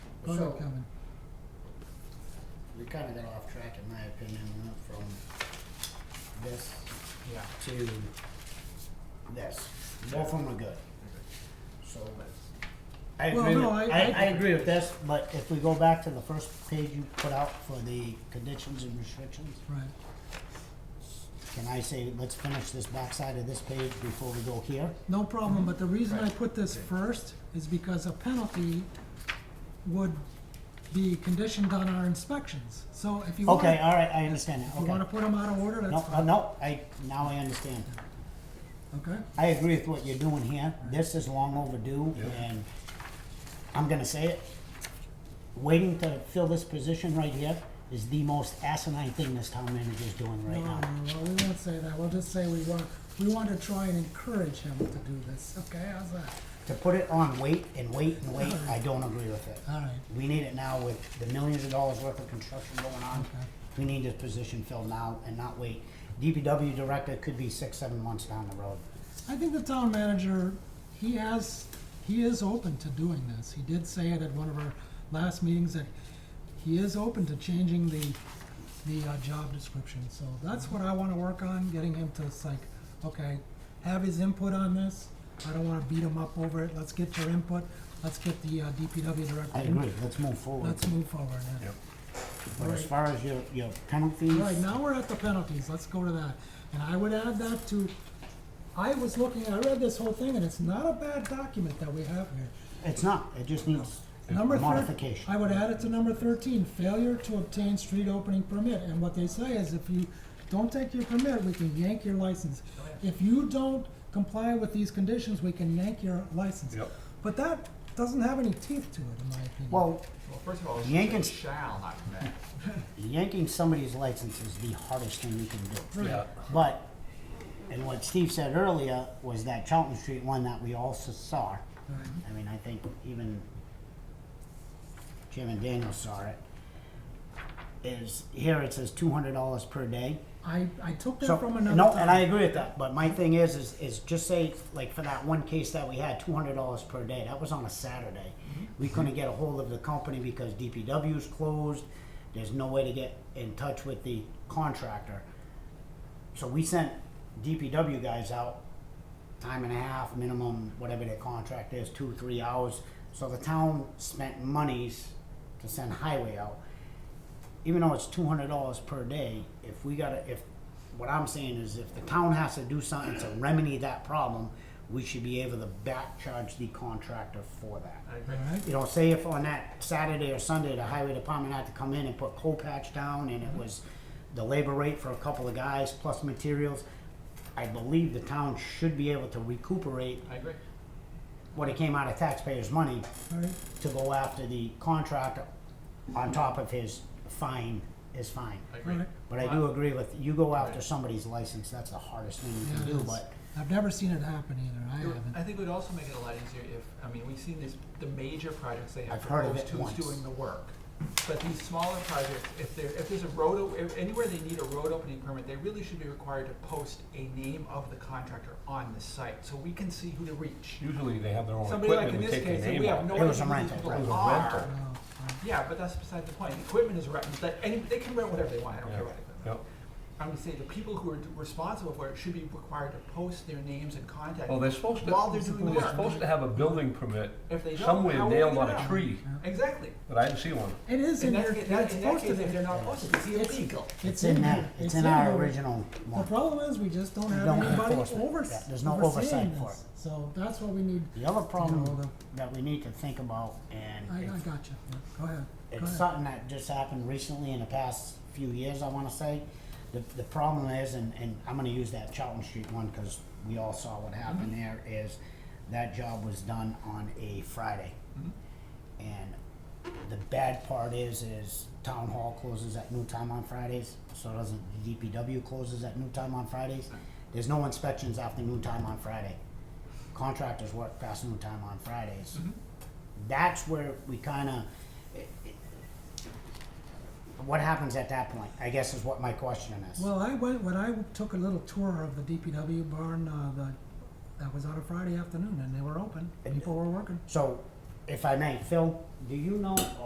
Boat So- coming. We kinda got off track in my opinion, we went from this Yeah. to this. Both of them are good. So, I Well, agree, with- no, I- I, I- I agree with this, but if we go back to the first page you put out for the conditions and restrictions, Right. can I say, let's finish this backside of this page before we go here? No Mhm. problem, but the reason I Right. put this first is because a penalty would be conditioned on our inspections. So if you want, Okay, if all right, I understand that, you wanna okay. put them out of order, No, that's uh, fine, no, I, now I understand. okay? I agree with what you're doing here. This is long overdue, Yeah. and I'm gonna say it. Waiting to fill this position right here is the most asinine thing this town manager's doing No, right no, now. no, we won't say that, we'll just say we want, we want to try and encourage him to do this, okay, how's that? To put it on wait and wait and wait, I don't agree with it. All right, We need it now with the millions of dollars worth of construction going on. Okay. We need this position filled now and not wait. DPW director could be six, seven months down the road. I think the town manager, he has, he is open to doing this. He did say it at one of our last meetings that he is open to changing the, the uh, job description. So that's what I wanna work on, getting him to, it's like, okay, have his input on this. I don't wanna beat him up over it. Let's get your input. Let's get the uh, DPW director. I agree, let's move forward. Let's move forward, yeah. Yep. But as far as your, your penalties. Right, now we're at the penalties, let's go to that. And I would add that to, I was looking, I read this whole thing, and it's not a bad document that we have here. It's not, it just needs Number thir- modification. I would add it to number thirteen, failure to obtain street opening permit, and what they say is if you don't take your permit, we can yank your license. If you don't comply with these conditions, we can yank your license. Yep. But that doesn't have any teeth to it, in my opinion. Well, Well, first of all, it Yankees- says shall not commence. yanking somebody's license is the hardest thing you can do. Right. But, and what Steve said earlier was that Charlton Street one that we also saw. Right. I mean, I think even Jim and Daniel saw it. Is, here it says two hundred dollars per day. I, I took So, that from another no, and I time. agree with that, but my thing is, is, is just say, like, for that one case that we had, two hundred dollars per day, that was on a Saturday. Mm-hmm. We couldn't get a hold of the company because DPW's closed, there's no way to get in touch with the contractor. So we sent DPW guys out, time and a half minimum, whatever their contract is, two, three hours. So the town spent monies to send highway out even though it's two hundred dollars per day, if we gotta, if, what I'm saying is if the town has to do something to remedy that problem, we should be able to back charge the contractor for that. I agree. All right. You know, say if on that Saturday or Sunday, the highway department had to come in and put coal patch down and it was the labor rate for a couple of guys plus materials, I believe the town should be able to recuperate I agree. what it came out of taxpayers' money All right. to go after the contractor on top of his fine, his fine. I agree. Right. But I do agree with, you go after somebody's license, that's the hardest thing you can Yeah, do, it's- but, I've never seen it happen either. I It would- haven't. I think it would also make it a lot easier if, I mean, we've seen this, the major projects they have I've heard of proposed it who's once. doing the work. But these smaller projects, if there, if there's a road, o- if anywhere they need a road opening permit, they really should be required to post a name of the contractor on the site, so we can see who to reach. Usually they have their own Somebody like equipment in and this take their case, and name we have off. no It was a idea who rental, these people right. are. It was a rental. No, no. Yeah, but that's beside the point. Equipment is rented, but any, they can rent whatever they want, I don't care about equipment. Yep. I would say the people who are d- responsible for it should be required to post their names and contact. Well, they're supposed to, While they're doing the they're work. supposed to have a building permit If they don't, how somewhere will nailed we on know? a tree, Exactly. but I didn't see one. It is in In that, your, ca- that, it's in that supposed case, to if be. they're not posted, it's It's- illegal. it's in there. there, it's in our there. original The one. problem is, we just don't have don't anybody enforce it. Yeah, overs- there's no overseeing oversight for this, so that's what we need. The other No, problem the- that we need to think about, and I, I it's- got you, Yeah, go ahead, go it's ahead. something that just happened recently in the past few years, I wanna say. The, the problem is, and, and I'm gonna use that Charlton Street one, cause we all saw what happened Mm-hmm. there, is that job was done on a Friday. Mm-hmm. And the bad part is, is town hall closes at noon time on Fridays, so doesn't DPW closes at noon time on Fridays. There's no inspections after noon time on Friday. Contractors work past noon time on Fridays. Mm-hmm. That's where we kinda, what happens at that point, I guess is what my question is. Well, I went, when I took a little tour of the DPW barn, uh, the, that was on a Friday afternoon, and they were open, people were working. So, if I may, Phil, do you know,